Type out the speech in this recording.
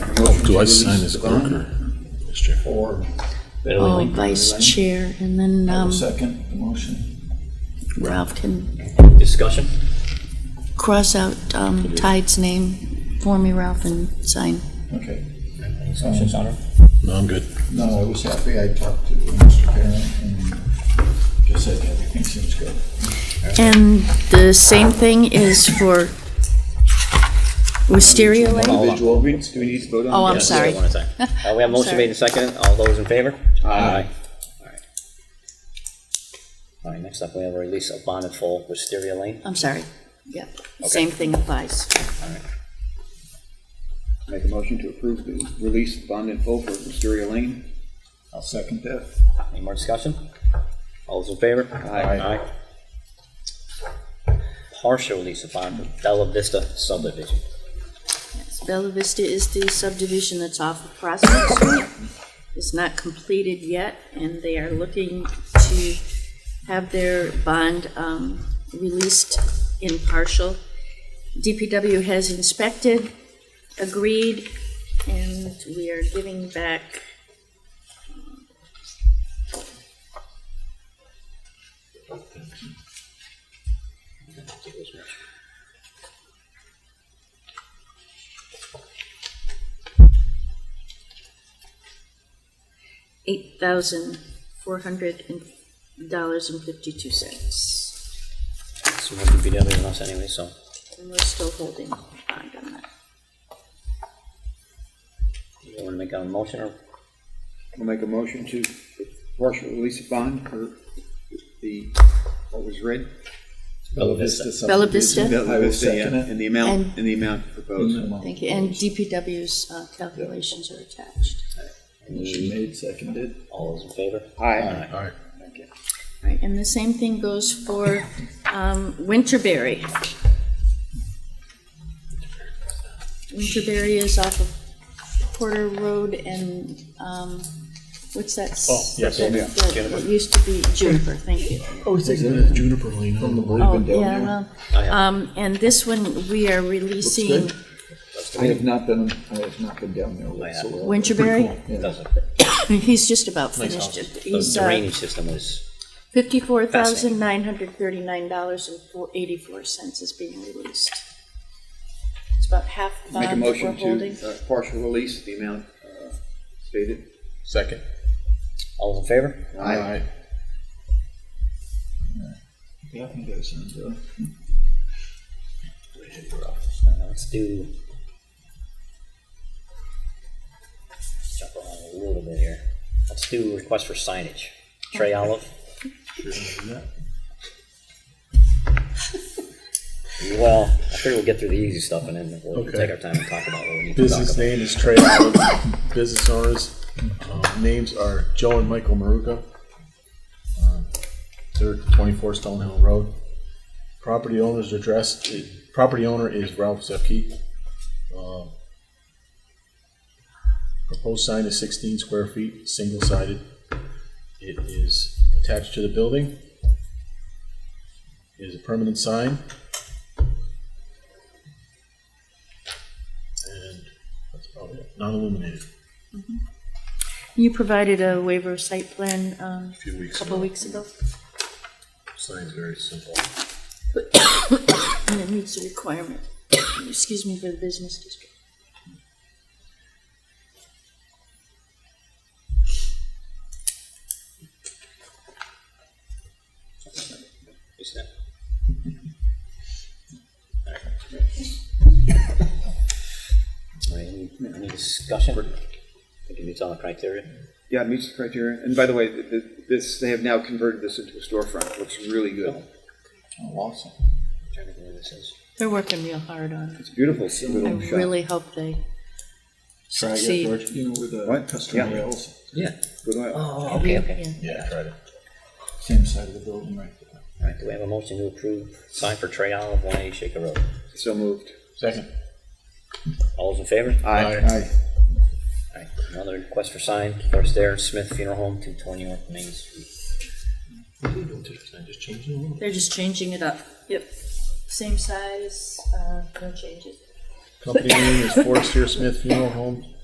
Motion to Do I release sign as the clerk bond or? Mr. Chair? For, Oh, vice chair, and then I will um, second the motion. Ralph can Discussion? cross out um, Tide's name for me, Ralph, and sign. Okay. Um, Any discussions on it? No, I'm good. No, I was happy I talked to Mr. Parent and just said everything seems good. And the same thing is for Wisteria Lane? Individual. Do we need to vote on? Oh, I'm sorry. Uh, We have a motion Sorry. made and seconded. All those in favor? Aye. All right. All right, next up, we have a release of bond in full Wisteria Lane. I'm sorry. Yeah, same thing applies. Make a motion to approve the release of bond in full for Wisteria Lane. I'll second that. Any more discussion? All those in favor? Aye. Aye. Partial release of bond for Bella Vista subdivision. Bella Vista is the subdivision that's off of Prospect Street. It's not completed yet, and they are looking to have their bond um, released in partial. DPW has inspected, agreed, and we are giving back eight thousand four hundred dollars and fifty-two cents. It's more DPW than us anyway, so. And we're still holding bond on that. You want to make a motion or I'll make a motion to partial release of bond for the, what was read? Bella Vista? Bella Vista? I will second it. In the And- amount, in the amount In the proposed. amount. Thank you, and DPW's uh, calculations are attached. Motion made, seconded. All those in favor? Aye. All right. All right, and the same thing goes for um, Winterberry. Winterberry is off of Porter Road and, um, what's that? s- Oh, yes, that- yeah, that- It used to be Juniper, thank you. Oh, he's taking a juniper lane. From the Oh, Blue yeah, down there. well, I have- um, and this one, we are releasing good. I have not been, I have not been down there uh, whatsoever. Winterberry. Yeah. Doesn't, He's just about finished. the He's the uh, drainage system was, Fifty-four thousand nine hundred thirty-nine dollars and eighty-four cents is being released. It's about half the Make a bond that we're motion holding. to uh, partial release, the amount uh, stated. Second. all those in favor? Aye. Yeah, I think that sounds good. Uh, Let's do. Jump around a little bit here. Let's do request for signage. Trey Olive. Well, I figure we'll get through the easy stuff and then we'll Okay. take our time and talk about what we need to talk Business about. name is Trey Olive. Business owners, um, names are Joe and Michael Maruka. Um, They're twenty-four Stonehill Road. Property owner's address, the property owner is Ralph Zepke. Um, Proposed sign is sixteen square feet, single-sided. It is attached to the building. It is a permanent sign. And that's probably it. Non-illuminated. You provided a waiver of site plan, um, Few a weeks couple ago. of weeks ago, Sign's very simple. and it meets the requirement, excuse me, for the business district. Isn't it? All right, any, any discussion? I think it's on the criteria. Yeah, it meets the criteria. And by the way, th- th- this, they have now converted this into a storefront. Looks really good. Oh, awesome. Trying to think what this is. They're working real hard on it. It's a beautiful I little shop. really hope they Try See. it, George. You know, with the What? custom Yeah. rails, Yeah. Good oil. Oh, okay, okay. Yeah, tried it. same side of the building right there. All right, do we have a motion to approve sign for Trey Olive, one eighty Shaker Road? So moved. Second. All those in favor? All Aye. Aye. right, another request for sign, First there, Smith Funeral Home, two twenty North Main Street. Just change it a little. They're just changing it up. Yep. Same size, uh, no changes. Company name is Forestier Smith Funeral Home,